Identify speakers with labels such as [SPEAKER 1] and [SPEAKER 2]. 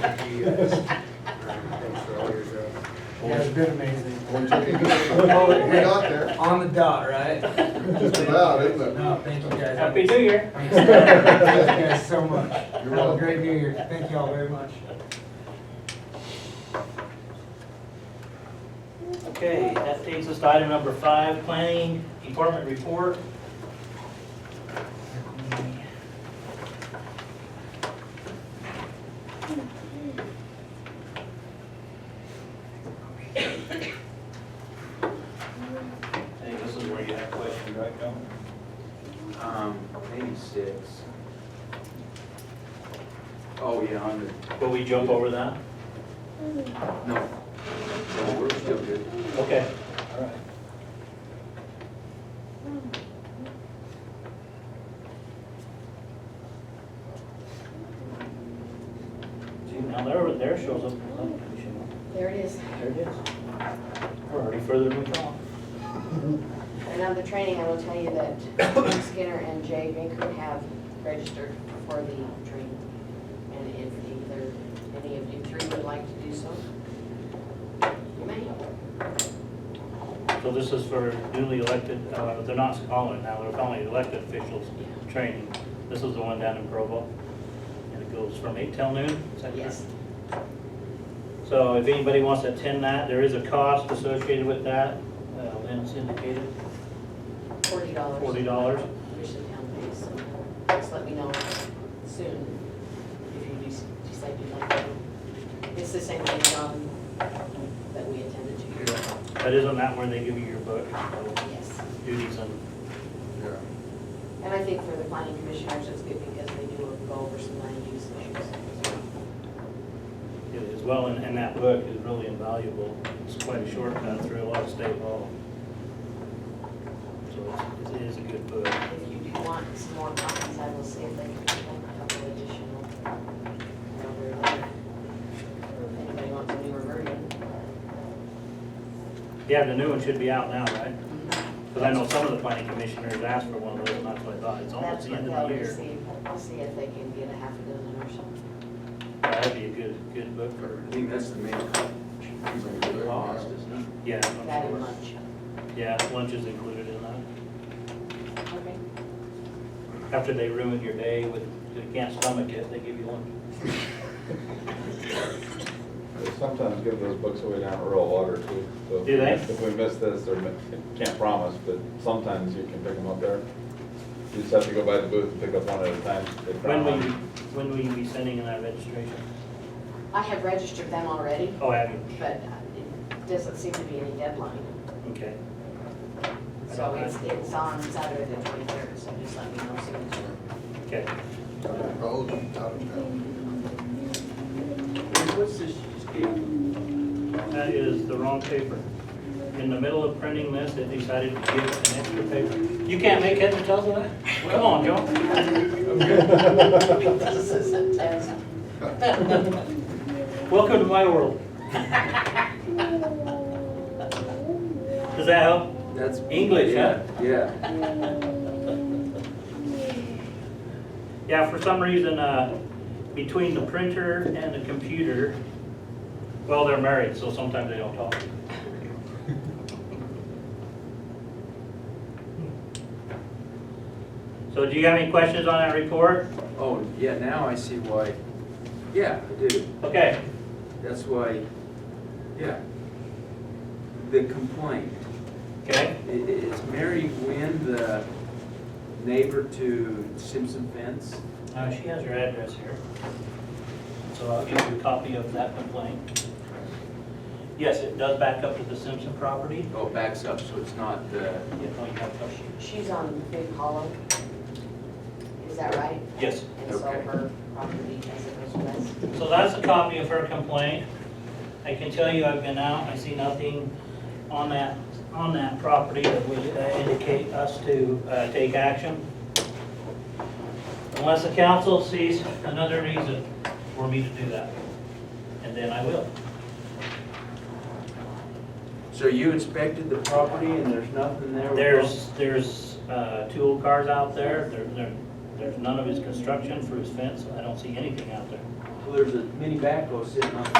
[SPEAKER 1] you guys. Thanks for all your help.
[SPEAKER 2] That's been amazing.
[SPEAKER 3] We're not there,
[SPEAKER 2] On the dot, right?
[SPEAKER 3] just about, isn't it?
[SPEAKER 2] No, thank you guys.
[SPEAKER 4] Happy New Year.
[SPEAKER 2] Thank you guys so much. Have
[SPEAKER 3] You're
[SPEAKER 2] a
[SPEAKER 3] welcome.
[SPEAKER 2] great new year. Thank y'all very much.
[SPEAKER 4] Okay, that takes us to item number five, planning department report. Hey, this is where you have questions, right, John?
[SPEAKER 5] Um, maybe six. Oh, yeah, on the,
[SPEAKER 4] Will we jump over that?
[SPEAKER 5] no, no, we're still good.
[SPEAKER 4] Okay, all right. See, now there, there shows up the planning commission.
[SPEAKER 6] There it is.
[SPEAKER 4] There it is. We're already further than we thought.
[SPEAKER 6] And on the training, I will tell you that Mike Skinner and Jay Binker have registered for the training. And if either, any of you three would like to do so, you may.
[SPEAKER 4] So this is for newly elected, uh, they're not calling it now, they're calling it elected officials training. This is the one down in Provo. And it goes from eight till noon, is that correct?
[SPEAKER 6] Yes.
[SPEAKER 4] So if anybody wants to attend that, there is a cost associated with that. Uh, Lynn's indicated
[SPEAKER 6] Forty dollars.
[SPEAKER 4] forty dollars.
[SPEAKER 6] Which the town pays, so just let me know soon if you de- decide you'd like to. It's the same thing, John, that we attended to.
[SPEAKER 4] But isn't that where they give you your book, so
[SPEAKER 6] Yes.
[SPEAKER 4] duties and,
[SPEAKER 3] Yeah.
[SPEAKER 6] And I think for the planning commissioners, it's good because they do go over some land use issues as well.
[SPEAKER 4] it as well, and, and that book is really invaluable. It's quite a shortcut through a lot of state law. So it's- it is a good book.
[SPEAKER 6] If you do want some more copies, I will see if they can get a couple additional. Or If anybody wants a newer version.
[SPEAKER 4] Yeah, the new one should be out now, right? Because I know some of the planning commissioners asked for one of those, and that's what I thought, it's almost
[SPEAKER 6] That's
[SPEAKER 4] the
[SPEAKER 6] what
[SPEAKER 4] end
[SPEAKER 6] they'll
[SPEAKER 4] of the year.
[SPEAKER 6] receive. I'll see if they can get a half a dozen or something.
[SPEAKER 4] That'd be a good, good book for,
[SPEAKER 5] I think that's the main cost, isn't
[SPEAKER 4] yeah,
[SPEAKER 6] That
[SPEAKER 4] I'm
[SPEAKER 6] and
[SPEAKER 4] sure.
[SPEAKER 6] lunch.
[SPEAKER 4] Yeah, lunch is included in that.
[SPEAKER 6] Okay.
[SPEAKER 4] After they ruin your day with, if you can't stomach it, they give you lunch.
[SPEAKER 7] They sometimes give those books away down at rural water too. so if
[SPEAKER 4] Do they?
[SPEAKER 7] If we miss this, or mi- can't promise, but sometimes you can pick them up there. You just have to go by the booth and pick up one at a time. They
[SPEAKER 4] When
[SPEAKER 7] found
[SPEAKER 4] will you,
[SPEAKER 7] one.
[SPEAKER 4] when will you be sending in that registration?
[SPEAKER 6] I have registered them already,
[SPEAKER 4] Oh, have you?
[SPEAKER 6] but uh, it doesn't seem to be any deadline.
[SPEAKER 4] Okay.
[SPEAKER 6] So it's, it's on Saturday the twenty-third, so just let me know soon.
[SPEAKER 4] Okay.
[SPEAKER 3] Roads out of town.
[SPEAKER 5] it? What's this you just gave me?
[SPEAKER 4] That is the wrong paper. In the middle of printing this, they decided to give us an extra paper. You can't make heads and tails of that? Come on, Joe.
[SPEAKER 6] This is a test.
[SPEAKER 4] Welcome to my world. Does that help?
[SPEAKER 5] That's.
[SPEAKER 4] English, huh?
[SPEAKER 5] Yeah.
[SPEAKER 4] Yeah, for some reason, uh, between the printer and the computer, well, they're married, so sometimes they don't talk. So do you have any questions on that report?
[SPEAKER 5] Oh, yeah, now I see why, yeah, I do.
[SPEAKER 4] Okay,
[SPEAKER 5] That's why, yeah. The complaint,
[SPEAKER 4] okay,
[SPEAKER 5] I- i- is Mary Nguyen the neighbor to Simpson Fence?
[SPEAKER 4] uh, she has her address here. So I'll give you a copy of that complaint. Yes, it does back up to the Simpson property.
[SPEAKER 5] Oh, backs up, so it's not the,
[SPEAKER 4] Yeah, no, you have to-
[SPEAKER 6] She's on Big Hollow. Is that right?
[SPEAKER 4] Yes.
[SPEAKER 6] And so
[SPEAKER 5] Okay.
[SPEAKER 6] her property as it goes west.
[SPEAKER 4] So that's a copy of her complaint. I can tell you I've been out, I see nothing on that, on that property that would uh, indicate us to uh, take action. Unless the council sees another reason for me to do that, and then I will.
[SPEAKER 5] so you inspected the property and there's nothing there? with-
[SPEAKER 4] There's, there's uh, two old cars out there, there, there- there's none of his construction for his fence, I don't see anything out there.
[SPEAKER 5] Well, there's a mini backhoe sitting on the